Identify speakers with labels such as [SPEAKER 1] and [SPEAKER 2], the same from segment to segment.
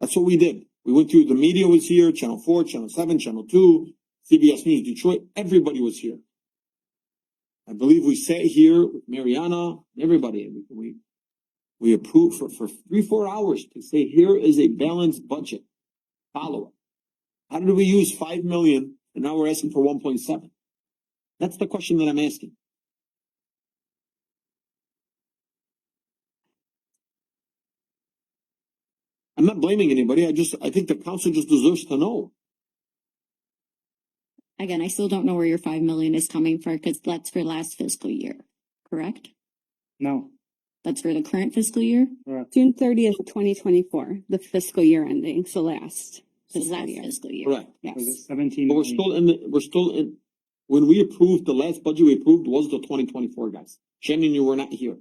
[SPEAKER 1] That's what we did. We went through, the media was here, Channel Four, Channel Seven, Channel Two, CBS News, Detroit, everybody was here. I believe we sat here with Mariana, everybody, and we- we, we approved for, for three, four hours to say, here is a balanced budget. Follow it. How did we use five million and now we're asking for one point seven? That's the question that I'm asking. I'm not blaming anybody. I just, I think the council just deserves to know.
[SPEAKER 2] Again, I still don't know where your five million is coming from, because that's for last fiscal year, correct?
[SPEAKER 3] No,
[SPEAKER 2] That's for the current fiscal year?
[SPEAKER 3] correct.
[SPEAKER 4] June thirtieth, twenty twenty-four, the fiscal year ending, so last.
[SPEAKER 2] This
[SPEAKER 4] fiscal
[SPEAKER 2] last
[SPEAKER 4] year.
[SPEAKER 2] fiscal year?
[SPEAKER 1] Correct.
[SPEAKER 3] So the
[SPEAKER 4] Yes,
[SPEAKER 3] Seventeen.
[SPEAKER 1] But we're
[SPEAKER 3] million-
[SPEAKER 1] still in, the we're still in, when we approved, the last budget we approved was the twenty twenty-four, guys. Shannon, you were not here.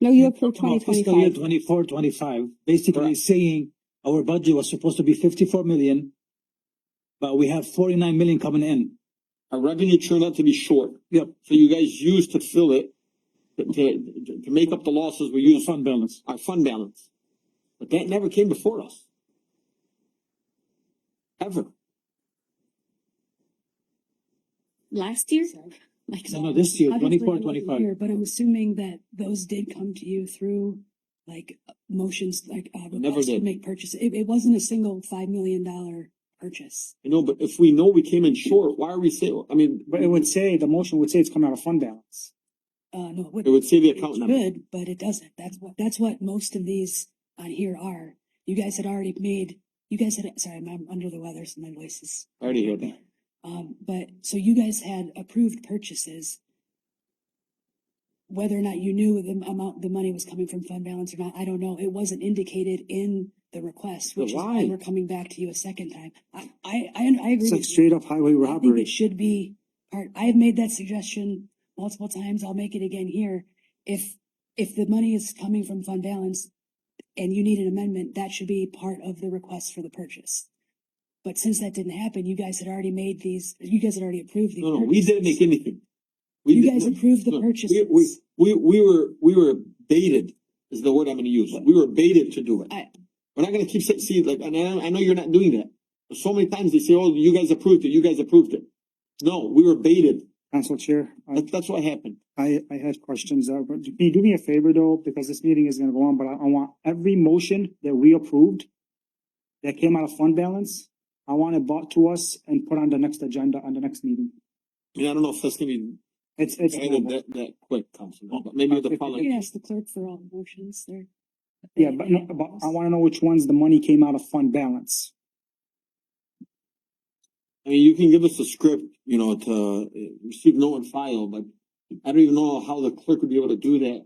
[SPEAKER 4] no, you approved
[SPEAKER 5] Come on,
[SPEAKER 4] twenty
[SPEAKER 5] Fiscal year
[SPEAKER 4] twenty-five.
[SPEAKER 5] twenty-four, twenty-five, basically
[SPEAKER 1] Correct.
[SPEAKER 5] saying our budget was supposed to be fifty-four million, but we have forty-nine million coming in.
[SPEAKER 1] Our revenue turned out to be short.
[SPEAKER 5] Yep.
[SPEAKER 1] So you guys used to fill it, to, to, to make up the losses we
[SPEAKER 5] Use
[SPEAKER 1] used
[SPEAKER 5] fund balance.
[SPEAKER 1] our fund balance. But that never came before us. Ever.
[SPEAKER 2] Last year? Like,
[SPEAKER 5] No, no, this year,
[SPEAKER 6] Obviously,
[SPEAKER 5] twenty-four,
[SPEAKER 6] it wasn't
[SPEAKER 5] twenty-five.
[SPEAKER 6] here, But I'm assuming that those did come to you through like motions, like uh,
[SPEAKER 1] Never
[SPEAKER 6] requests to
[SPEAKER 1] did.
[SPEAKER 6] make purchase. It, it wasn't a single five million dollar purchase.
[SPEAKER 1] You know, but if we know we came in short, why are we saying, I mean,
[SPEAKER 3] But it would say, the motion would say it's coming out of fund balance.
[SPEAKER 6] Uh, no, it
[SPEAKER 1] it
[SPEAKER 6] wouldn't.
[SPEAKER 1] would say the
[SPEAKER 6] It
[SPEAKER 1] account number.
[SPEAKER 6] should, but it doesn't. That's what, that's what most of these on here are. You guys had already made, you guys had, sorry, I'm- I'm under the weather, so my voice is
[SPEAKER 1] I already heard that.
[SPEAKER 6] Um, but, so you guys had approved purchases. Whether or not you knew the amount, the money was coming from fund balance or not, I don't know. It wasn't indicated in the request,
[SPEAKER 1] But
[SPEAKER 6] which is
[SPEAKER 1] why?
[SPEAKER 6] why we're coming back to you a second time. I, I, I, I agree
[SPEAKER 3] It's like
[SPEAKER 6] with you.
[SPEAKER 3] straight up highway
[SPEAKER 6] I think it
[SPEAKER 3] robbery.
[SPEAKER 6] should be part, I have made that suggestion multiple times. I'll make it again here. If, if the money is coming from fund balance and you need an amendment, that should be part of the request for the purchase. But since that didn't happen, you guys had already made these, you guys had already approved these.
[SPEAKER 1] No, no, we didn't make
[SPEAKER 6] purchases.
[SPEAKER 1] anything. We
[SPEAKER 6] You
[SPEAKER 1] did-
[SPEAKER 6] guys approved the
[SPEAKER 1] look,
[SPEAKER 6] purchases.
[SPEAKER 1] We, we, we, we were, we were baited, is the word I'm gonna use. We were baited to do it.
[SPEAKER 6] I-
[SPEAKER 1] We're not gonna keep saying, see, like, and I, I know you're not doing that. But so many times they say, oh, you guys approved it, you guys approved it. No, we were baited.
[SPEAKER 3] Council Chair, I,
[SPEAKER 1] That, that's what happened.
[SPEAKER 3] I, I had questions. uh, but Can you do me a favor though, because this meeting is gonna go on, but I, I want every motion that we approved that came out of fund balance, I want it brought to us and put on the next agenda, on the next meeting.
[SPEAKER 1] And I don't know if that's gonna be
[SPEAKER 3] It's, it's.
[SPEAKER 1] handled that, that quick, Councilman, but maybe the
[SPEAKER 6] You
[SPEAKER 1] following.
[SPEAKER 6] can ask the clerk for all the motions there.
[SPEAKER 3] Yeah, but, no, but I wanna know which ones the money came out of fund balance.
[SPEAKER 1] I mean, you can give us a script, you know, to uh, receive no and file, but I don't even know how the clerk would be able to do that.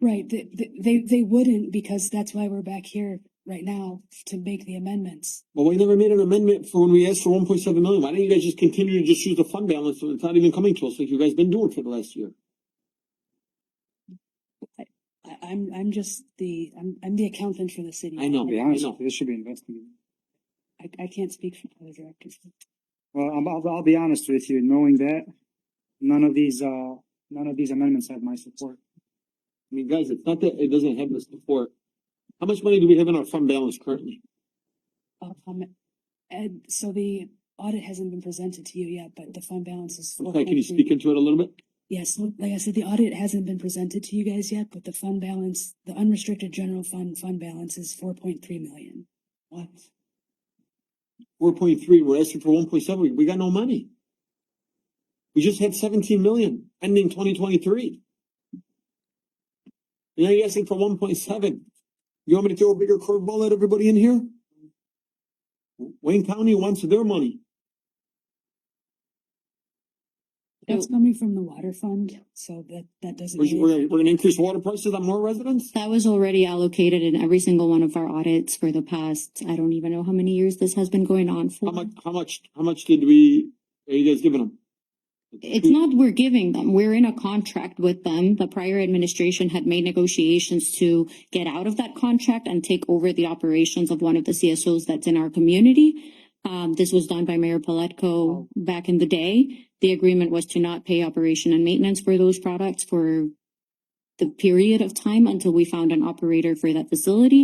[SPEAKER 6] Right, they, they, they wouldn't because that's why we're back here right now to make the amendments.
[SPEAKER 1] Well, we never made an amendment for when we asked for one point seven million. Why didn't you guys just continue to just use the fund balance when it's not even coming to us like you guys been doing for the last year?
[SPEAKER 6] I, I'm, I'm just the, I'm, I'm the accountant for the city.
[SPEAKER 1] I know.
[SPEAKER 3] To be
[SPEAKER 1] I
[SPEAKER 3] honest
[SPEAKER 1] know.
[SPEAKER 3] with you, this should be investigated.
[SPEAKER 6] I, I can't speak for other directors.
[SPEAKER 3] Well, I'm, I'll, I'll be honest with you, knowing that, none of these, uh, none of these amendments have my support.
[SPEAKER 1] I mean, guys, it's not that it doesn't have this before. How much money do we have in our fund balance currently?
[SPEAKER 6] Um, and so the audit hasn't been presented to you yet, but the fund balance is.
[SPEAKER 1] Okay, can you speak
[SPEAKER 6] 4.3.
[SPEAKER 1] into it a little bit?
[SPEAKER 6] Yes, well, like I said, the audit hasn't been presented to you guys yet, but the fund balance, the unrestricted general fund, fund balance is four point three million. What?
[SPEAKER 1] Four point three, we're asking for one point seven. We got no money. We just had seventeen million ending twenty twenty three. And now you're asking for one point seven. You want me to throw a bigger curveball at everybody in here? Wayne County wants their money.
[SPEAKER 6] That's coming from the water fund, so that, that doesn't.
[SPEAKER 1] We're,
[SPEAKER 6] really-
[SPEAKER 1] we're, gonna- we're gonna increase water prices on more residents?
[SPEAKER 2] that was already allocated in every single one of our audits for the past, I don't even know how many years this has been going on for.
[SPEAKER 1] How much, how much, how much did we, are you guys giving them?
[SPEAKER 2] It's not we're giving them, we're in a contract with them. The prior administration had made negotiations to get out of that contract and take over the operations of one of the CSOs that's in our community. Um, this was done by Mayor Paletko back in the day. The agreement was to not pay operation and maintenance for those products for the period of time until we found an operator for that facility.